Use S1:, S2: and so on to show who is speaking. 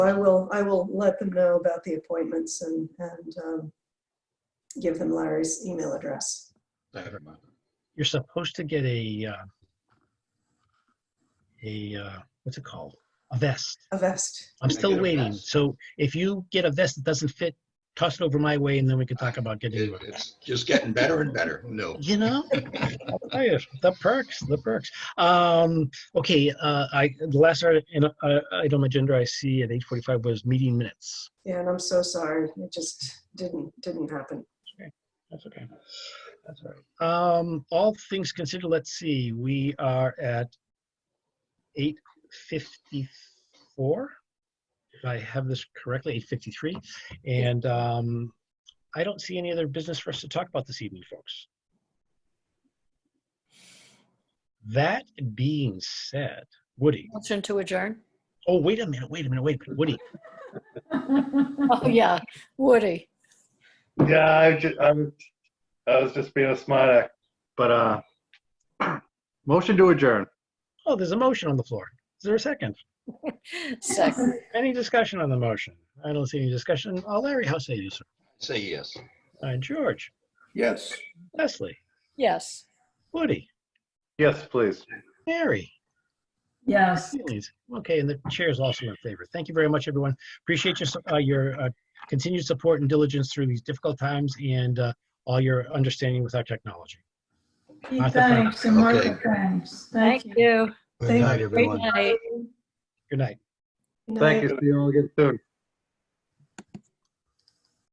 S1: I will, I will let them know about the appointments and, and um, give them Larry's email address.
S2: I don't know.
S3: You're supposed to get a, uh, a, uh, what's it called? A vest.
S1: A vest.
S3: I'm
S2: Can I
S3: still
S2: get a
S3: waiting.
S2: vest?
S3: So if you get a vest that doesn't fit, toss it over my way and then we can talk about getting,
S2: It- It's just getting better and better. No.
S3: you know? I'll tell you, The perks, the perks. Um, okay, uh, I, the last item uh, item on agenda I see at 8:45 was meeting minutes.
S1: Yeah, and I'm so sorry. It just didn't, didn't happen.
S3: That's okay. That's all right. Um, all things considered, let's see, we are at eight fifty-four. If I have this correctly, eight fifty-three, and, um, I don't see any other business for us to talk about this evening, folks. That being said, Woody,
S4: Motion to adjourn?
S3: oh, wait a minute, wait a minute, wait a minute, Woody,
S4: Oh, yeah, Woody.
S5: Yeah, I just, I was, I was just being a smart act, but, uh, motion to adjourn.
S3: oh, there's a motion on the floor. Is there a second?
S4: Second.
S3: Any discussion on the motion? I don't see any discussion. Uh, Larry, how say you, sir?
S2: Say yes.
S3: Uh, George,
S6: Yes.
S3: Leslie,
S4: Yes.
S3: Woody,
S5: Yes, please.
S3: Mary.
S7: Yes.
S3: Please. Okay, and the chair is also in favor. Thank you very much, everyone. Appreciate your, su- uh, your uh, continued support and diligence through these difficult times and uh, all your understanding with our technology.
S7: Gee,
S3: Martha,
S7: Thanks, and Martha,
S2: Okay.
S7: thanks.
S4: Thank you.
S1: Thank
S7: night,
S4: Good night.
S3: Good night.
S1: Good night.
S5: Thank you. See you all again soon.